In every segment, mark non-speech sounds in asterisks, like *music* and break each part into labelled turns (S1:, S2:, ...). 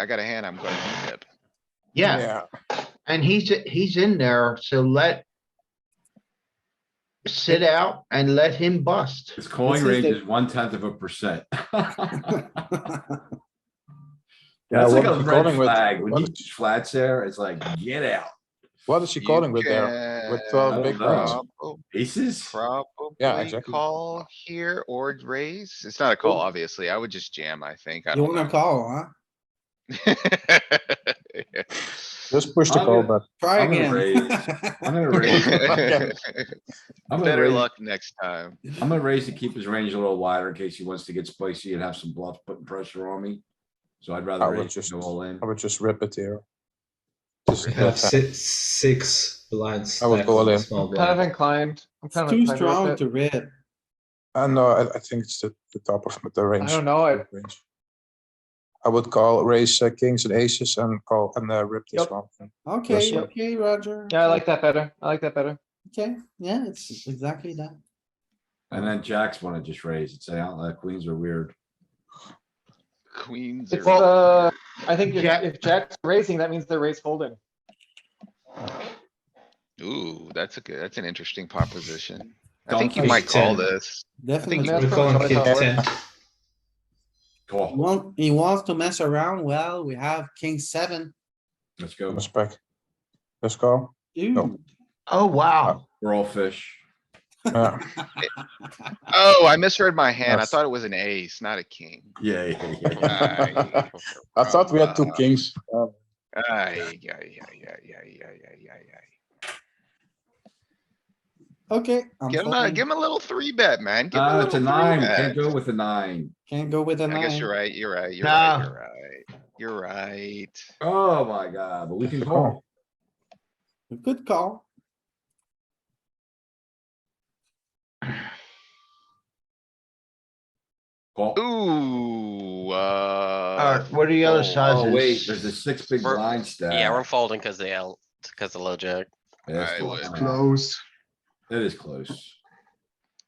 S1: I got a hand I'm gonna tip.
S2: Yeah, and he's, he's in there, so let. Sit out and let him bust.
S3: His
S4: This
S3: calling
S4: is
S3: range
S4: the-
S3: is one tenth of a percent. *laughs*
S4: Yeah,
S3: That's like a
S4: what is she
S3: red
S4: calling with?
S3: flag. When
S4: what-
S3: he flats there, it's like, get out.
S4: What is she
S1: You
S4: calling with there? uh,
S1: can
S3: big blinds.
S1: prob-
S3: Aces?
S1: Probably
S4: exactly.
S1: call here or raise. It's not a call, obviously. I would just jam, I think. I
S5: You
S1: don't
S5: wanna
S1: know.
S5: call, huh?
S4: Just push the call,
S3: Okay.
S4: but
S5: Try
S3: I'm gonna
S5: *laughs* again.
S3: I'm
S1: *laughs*
S3: gonna raise, I'm gonna
S1: *laughs* Better
S3: raise,
S1: luck next time.
S3: I'm gonna raise to keep his range a little wider in case he wants to get spicy and have some bluffs putting pressure on me. So I'd
S4: I
S3: rather
S4: would
S3: raise
S4: just-
S3: to go all in.
S4: I would just rip it here. Just
S6: have
S4: let-
S6: si- six blinds.
S4: I would
S6: left
S4: go all
S6: in the
S4: in.
S6: small
S7: Kind of
S6: blind.
S7: inclined. I'm kind
S5: It's
S7: of
S5: too
S7: inclined
S5: strong
S7: with
S5: to
S7: it.
S5: rip.
S4: I know, I, I think it's the, the top of the
S7: I
S4: range.
S7: don't know. I,
S4: range. I would call, raise uh, kings and aces and call, and uh, rip this
S7: Yep.
S4: one.
S5: Okay,
S4: sir.
S5: okay, Roger.
S7: yeah, I like that better. I like that better.
S5: Okay, yeah, it's exactly that.
S3: And then jacks wanna just raise and say, oh, queens are weird.
S1: Queens
S7: It's,
S1: are,
S7: uh, I think if,
S2: Jack-
S7: if Jack's raising, that means they're raise folding.
S1: ooh, that's a good, that's an interesting proposition. I
S6: Don't
S1: think you
S6: push
S1: might call
S6: 10.
S1: this.
S5: Definitely.
S7: That's
S6: We're
S7: probably
S6: calling
S7: what I
S6: king
S7: thought.
S6: ten.
S3: Call,
S5: Well, he wants to mess around. Well, we have king seven.
S3: let's go.
S4: Respect. Let's go.
S5: Dude,
S2: Oh, wow.
S3: We're all fish.
S4: Yeah,
S1: Oh, I misread my hand. I
S4: Yes.
S1: thought it was an ace, not a king.
S3: Yeah, yeah, yeah, yeah.
S1: Ay,
S4: *laughs* I thought we had two
S1: caramba.
S4: kings. Uh,
S1: Ay, ay, ay, ay, ay, ay, ay, ay, ay.
S5: okay. I'm
S1: Give him a,
S5: folding.
S1: give him a little three bet, man. Give him
S3: Ah,
S1: a
S3: it's a
S1: little
S3: nine,
S1: three
S3: can't
S1: bet.
S3: go with a nine.
S5: Can't go with a
S1: I guess you're
S5: nine.
S1: right, you're right, you're right,
S2: Nah.
S1: you're right, you're right.
S3: Oh my god, but we can
S4: Good
S3: call.
S4: call.
S5: Good call.
S3: Call.
S1: Ooh, uh.
S2: Alright, what are the other
S1: oh,
S2: sizes?
S3: Oh wait, there's a six big
S8: We're-
S3: blind stack.
S8: Yeah, we're folding because the L, because the low jack.
S3: That's
S1: I
S3: the
S1: would.
S3: line.
S2: Close.
S3: It is close.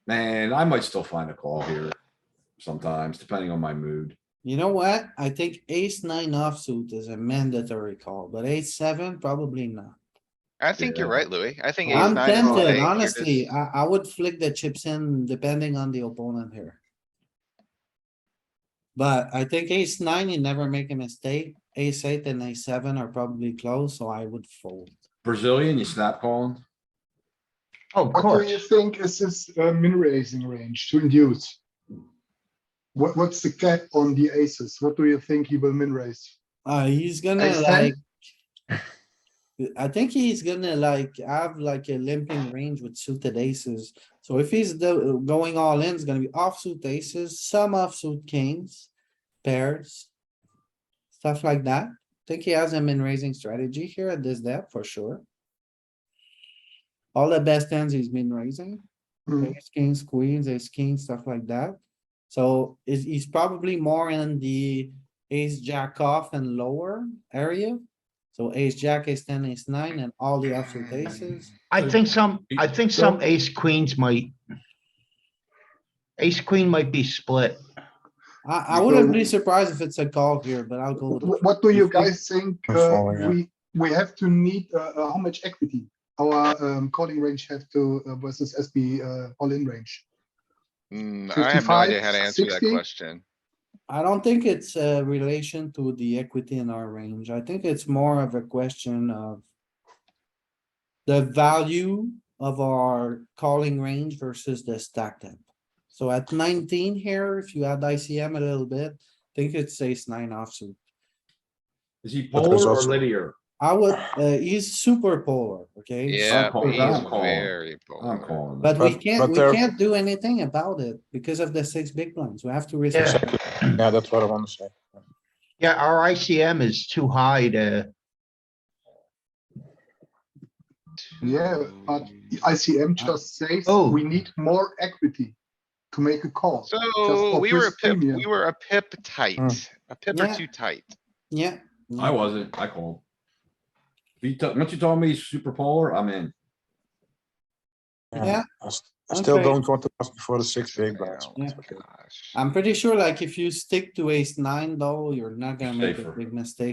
S3: Man, I might still find a call here sometimes, depending on my mood.
S5: You know what? I think ace nine offsuit is a mandatory call, but ace seven probably not.
S1: I think you're right, Louis. I think. ace
S5: I'm
S1: nine is the thing.
S5: tempted,
S1: You're
S5: honestly.
S1: just-
S5: I, I would flick the chips in depending on the opponent here. But I think ace nine, you never make a mistake. Ace eight and ace seven are probably close, so I would fold.
S3: Brazilian, you snap calling?
S2: Oh, Of
S9: What do you
S2: course.
S9: think is his uh, min raising range to induce? What, what's the cap on the aces? What do you think he will min raise?
S5: Uh, he's gonna
S2: Ace
S5: like.
S2: ten?
S5: I think he's gonna like have like a limping range with suited aces. So if he's the, going all in, it's gonna be offsuit aces, some offsuit kings, pairs. Stuff like that. Think he has a min raising strategy here at this depth for sure. All the best hands he's been raising,
S9: Hmm.
S5: ace kings, queens, ace kings, stuff like that. So is, he's probably more in the ace jack off and lower area. So ace jack, ace ten, ace nine, and all the offsuit aces.
S2: I think some, I think some ace queens might. Ace queen might be split.
S5: I, I
S9: You
S5: wouldn't
S9: go-
S5: be surprised if it's a call here, but I'll go with.
S9: *laughs* Wh- What do you
S5: think-
S9: guys think
S4: I'm
S9: uh,
S4: following you.
S9: we, we have to need, uh, uh, how much equity our um, calling range have to uh, versus SB uh, all-in range?
S1: Mm, I have no
S9: 55,
S1: idea how to answer that
S9: 60?
S1: question.
S5: I don't think it's a relation to the equity in our range. I think it's more of a question of. The value of our calling range versus the stack depth. So at nineteen here, if you add ICM a little bit, I think it's ace nine offsuit.
S3: Is he
S4: But
S3: polar
S4: there's
S3: or
S4: also-
S3: linear?
S5: I would, uh, he's super polar, okay?
S1: Yeah,
S3: calling,
S1: he's
S3: I'm calling.
S1: very
S3: I'm
S1: bold.
S3: calling.
S5: But we
S4: But-
S5: can't,
S4: but
S5: we
S4: there-
S5: can't do anything about it because of the six big blinds. We have to respect.
S2: Yeah,
S4: Yeah, that's what I want to say.
S2: yeah, our ICM is too high to,
S9: Yeah, but ICM just says
S2: Oh.
S9: we need more equity to make a call.
S1: So
S9: for
S1: we were a
S9: risk
S1: pip,
S9: premium.
S1: we were a pip tight, a pip or
S5: Yeah.
S1: two tight.
S5: Yeah.
S3: I wasn't, I called. If you, t- once you told me he's super polar, I'm in.
S5: Yeah.
S4: I s- I still
S5: Okay.
S4: don't want to pass before the six big blinds.
S1: Oh my
S5: Yeah.
S1: gosh.
S5: I'm pretty sure like if you stick to ace nine though, you're not gonna make a
S3: Safer.
S5: big mistake.